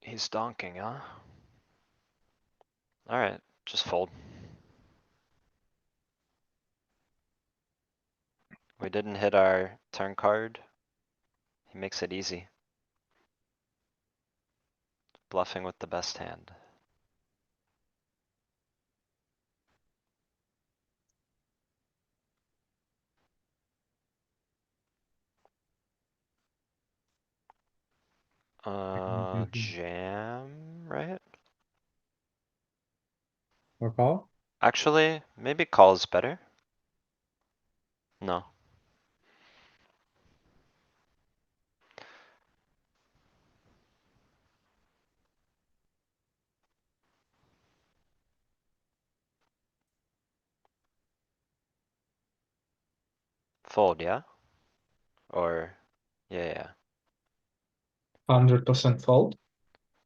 He's donking, huh? Alright, just fold. We didn't hit our turn card. He makes it easy. Bluffing with the best hand. Uh, mhm. jam, right? or call? Actually, maybe call is better. No. Fold, yeah? Or, yeah, yeah. Hundred percent fold.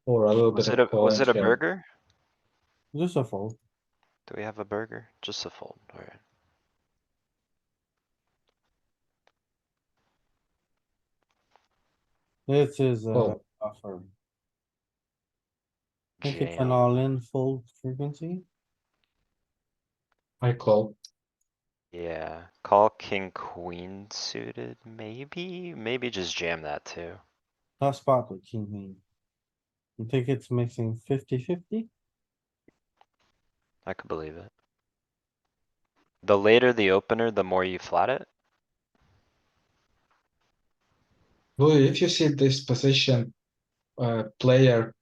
Or a little Was bit it a, of was it a calling here. burger? Just a fold. Do we have a burger? Just a fold, alright. This is a Fold. buffer. I think it's an Jam, all-in fold frequency. I call. yeah. Call king, queen suited, maybe, maybe just jam that too. Tough spot with king queen. You think it's mixing 50-50? I could believe it. The later the opener, the more you flat it. Louis, if you see this position, uh, player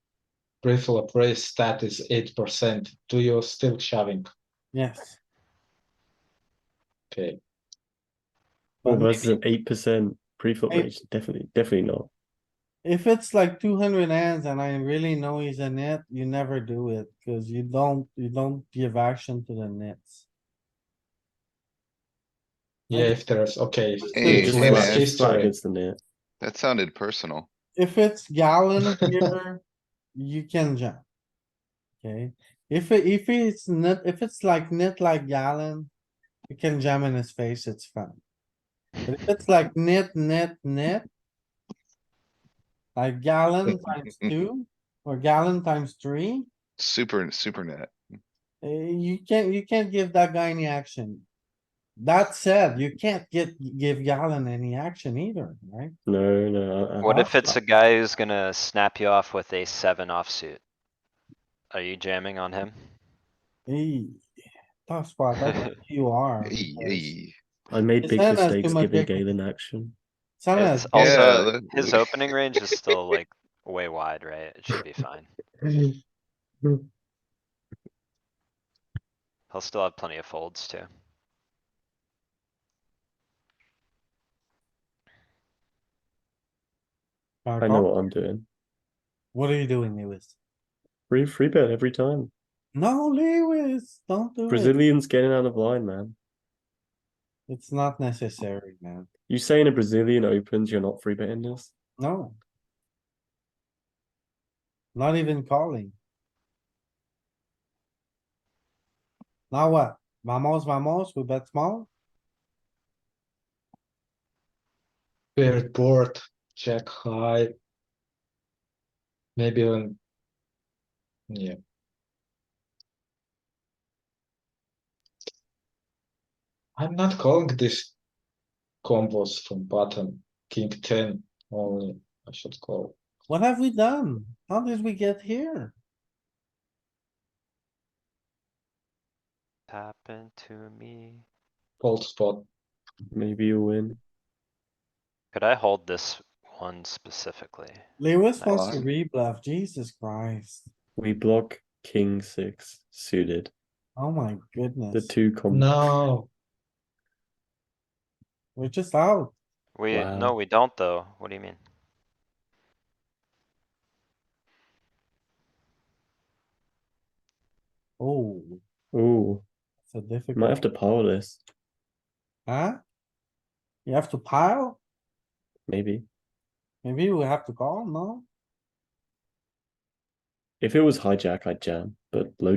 pre-flop raise stat is eight percent. Do you still shoving? Yes, Okay, Well, But versus an eight percent pre-flop Eight- range, definitely, definitely not. if it's like two hundred hands and I really know he's a net, you never do it, cause you don't, you don't give action to the nets. yeah, if there's, okay. if Hey, it's Just hey, less flat- man. just flat history, against the net. That sounded personal. If it's gallon here, you can jump. Okay, if it, if it's net, if it's like net like gallon, you can jam in his face, it's fun. But if it's like net, net, net. Like gallon times two or gallon times three, Super, super net. eh, you can't, you can't give that guy any action. That said, you can't get, give gallon any action either, right? No, no. I- I- What I- if it's a guy who's gonna snap you off with a seven offsuit? Are you jamming on him? Eh, Tough spot, that's what you are. Eey, because eey. I made Is big that uh, as too mistakes much giving equity? Galen action. Some It's has- also, that- his opening range is still like way wide, right? It should be fine. He'll still have plenty of folds too. I Oh. know what I'm doing. What are you doing, Lewis? Free, free bet every time. No, Lewis, don't do it. Brazilians getting out of line, man. It's not necessary, man. You saying a Brazilian opens, you're not free betting this? No. Not even calling. Now what? Vamos, vamos, we bet small? paired board, jack high. Maybe even. Yeah, I'm not calling this combos from bottom, king ten only, I should call. What have we done? How did we get here? Tap into me. Cold spot, Maybe you'll win. Could I hold this one specifically? Lewis wants to Hello? rebluff, Jesus Christ. We block king six suited. Oh my The goodness, two com. no, we're just out. We, Wow. no, we don't though. What do you mean? Oh, Ooh, it's a difficult. might have to power this. Huh? You have to pile? Maybe Maybe we have to call, no? if it was hijack, I'd jam, but low